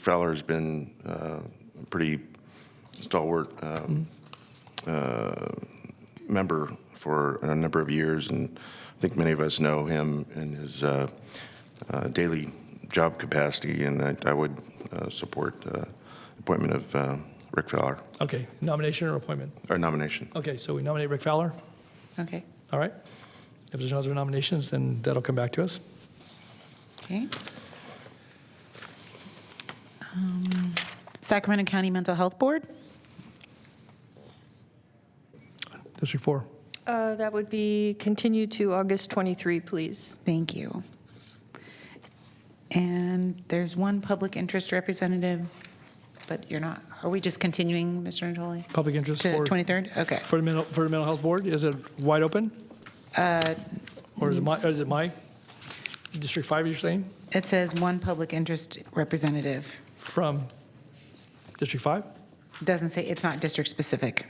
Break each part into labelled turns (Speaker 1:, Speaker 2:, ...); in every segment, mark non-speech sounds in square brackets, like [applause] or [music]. Speaker 1: Fowler's been uh, a pretty stalwart um, uh, member for a number of years, and I think many of us know him in his uh, uh, daily job capacity, and I I would uh, support uh, appointment of uh, Rick Fowler,
Speaker 2: Okay, nomination or appointment?
Speaker 1: or nomination.
Speaker 2: Okay, so we nominate Rick Fowler,
Speaker 3: Okay,
Speaker 2: all right? If there's no other nominations, then that'll come back to us.
Speaker 3: okay. Um, Sacramento County Mental Health Board?
Speaker 2: District four.
Speaker 4: Uh, That would be continue to August 23, please.
Speaker 3: Thank you. And there's one public interest representative, but you're not, are we just continuing, Mr. Natoli?
Speaker 2: Public interest
Speaker 3: To
Speaker 2: for,
Speaker 3: 23rd? Okay.
Speaker 2: for the mental, for the mental health board, is it wide open?
Speaker 3: Uh,
Speaker 2: Or is it my, is it my, District five, you're saying,
Speaker 3: It says one public interest representative.
Speaker 2: from District five?
Speaker 3: Doesn't say, it's not district-specific.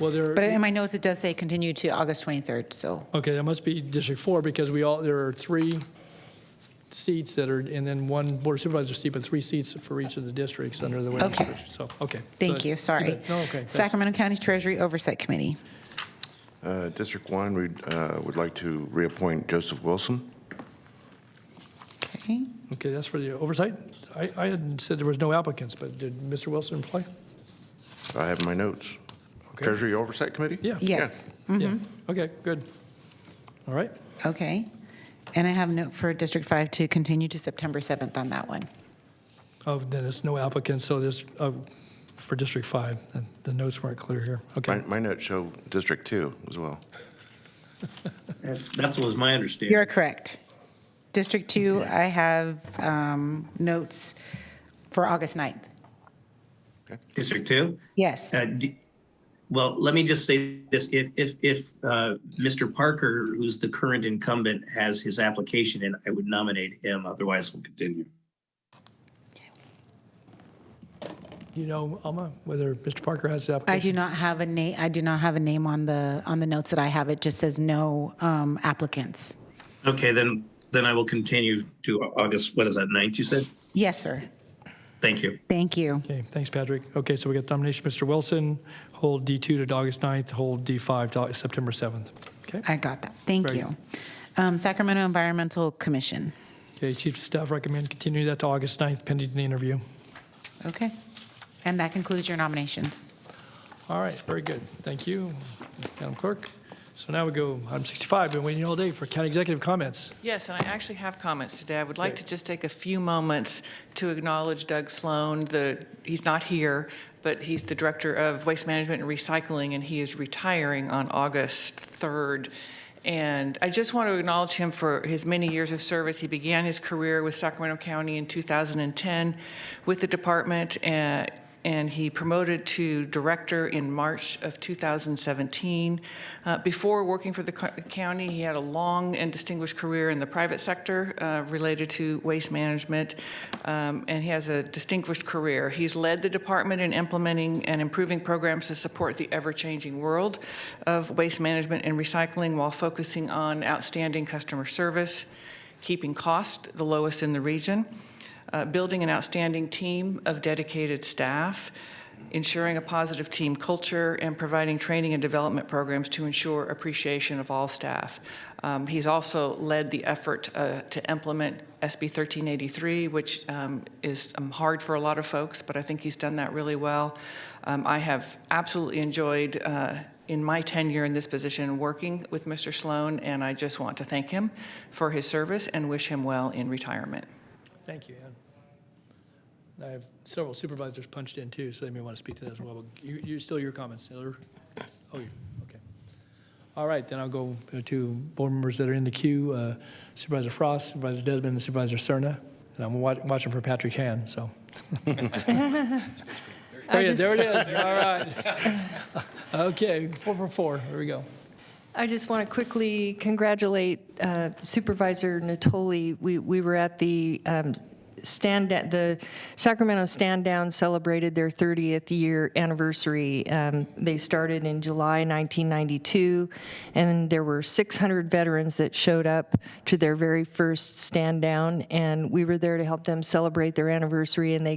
Speaker 2: Well, there,
Speaker 3: But in my notes, it does say continue to August 23rd, so,
Speaker 2: okay, that must be District four, because we all, there are three seats that are, and then one board supervisor seat, but three seats for each of the districts under the way.
Speaker 3: Okay.
Speaker 2: So, okay.
Speaker 3: thank
Speaker 2: So-
Speaker 3: you, sorry.
Speaker 2: bet. No, okay, thanks.
Speaker 3: Sacramento County Treasury Oversight Committee.
Speaker 1: Uh, District One, we would like to reappoint Joseph Wilson.
Speaker 3: Okay.
Speaker 2: Okay, that's for the oversight. I, I had said there was no applicants, but did Mr. Wilson apply?
Speaker 1: I have my notes.
Speaker 2: Okay.
Speaker 1: Treasury Oversight Committee?
Speaker 2: Yeah.
Speaker 3: Yes,
Speaker 2: Yeah, okay, good. All right,
Speaker 3: okay. And I have a note for District 5 to continue to September 7th on that one.
Speaker 2: oh, then there's no applicants, so there's, uh, for District 5, the- the notes weren't clear here.
Speaker 1: My,
Speaker 2: Okay,
Speaker 1: my notes show District Two as well.
Speaker 5: That's, that's was my understanding.
Speaker 3: You're correct. District 2, I have um, notes for August 9th.
Speaker 5: District two?
Speaker 3: Yes,
Speaker 5: Uh, d- Well, let me just say this, if, if, if uh, Mr. Parker, who's the current incumbent, has his application in, I would nominate him, otherwise we'll continue.
Speaker 2: you know, Alma, whether Mr. Parker has the
Speaker 3: I
Speaker 2: application?
Speaker 3: do not have a name, I do not have a name on the, on the notes that I have. It just says no um, applicants.
Speaker 5: Okay, then, then I will continue to Au- August, what is that, ninth, you said?
Speaker 3: Yes, sir.
Speaker 5: Thank you.
Speaker 3: Thank you.
Speaker 2: Okay, thanks, Patrick. Okay, so we got nomination, Mr. Wilson, hold D2 to August 9th, hold D5 to August- September 7th. Okay,
Speaker 3: I got that. Thank
Speaker 2: Very
Speaker 3: you. Um, Sacramento Environmental Commission.
Speaker 2: Okay. Chief of Staff recommend continue that to August 9th pending an interview.
Speaker 3: Okay. And that concludes your nominations.
Speaker 2: All right, very good. Thank you, Madam Clerk. So now we go, item 65, been waiting all day for county executive comments.
Speaker 6: Yes, and I actually have comments today. I would like to just take a few moments to acknowledge Doug Sloan, the, he's not here, but he's the Director of Waste Management and Recycling, and he is retiring on August 3rd. And I just want to acknowledge him for his many years of service. He began his career with Sacramento County in 2010 with the department, uh, and he promoted to director in March of 2017. Uh, before working for the co- county, he had a long and distinguished career in the private sector uh, related to waste management, um, and he has a distinguished career. He's led the department in implementing and improving programs to support the ever changing world of waste management and recycling while focusing on outstanding customer service, keeping costs the lowest in the region uh, building an outstanding team of dedicated staff, ensuring a positive team culture, and providing training and development programs to ensure appreciation of all staff. Um, he's also led the effort uh, to implement SB 1383, which um, is um, hard for a lot of folks, but I think he's done that really well. Um, I have absolutely enjoyed. Uh, in my tenure in this position, working with Mr. Sloan, and I just want to thank him for his service and wish him well in retirement.
Speaker 2: Thank you, Ann. And I have several supervisors punched in too, so they may want to speak to that as well. But You, you, still your comments, Taylor? Oh, you, okay. All right, then I'll go to board members that are in the queue, uh, Supervisor Frost, Supervisor Desmond, and Supervisor Serna. And I'm wa- watching for Patrick Han, so. [laughs] There it is, there it is, all right. [laughs] Okay, four for four, here we go.
Speaker 4: I just want to quickly congratulate uh, Supervisor Natoli. We we were at the um, stand, the Sacramento Stand Down celebrated their 30th year anniversary. Um, They started in July 1992, and there were 600 veterans that showed up to their very first stand down, and we were there to help them celebrate their anniversary, and they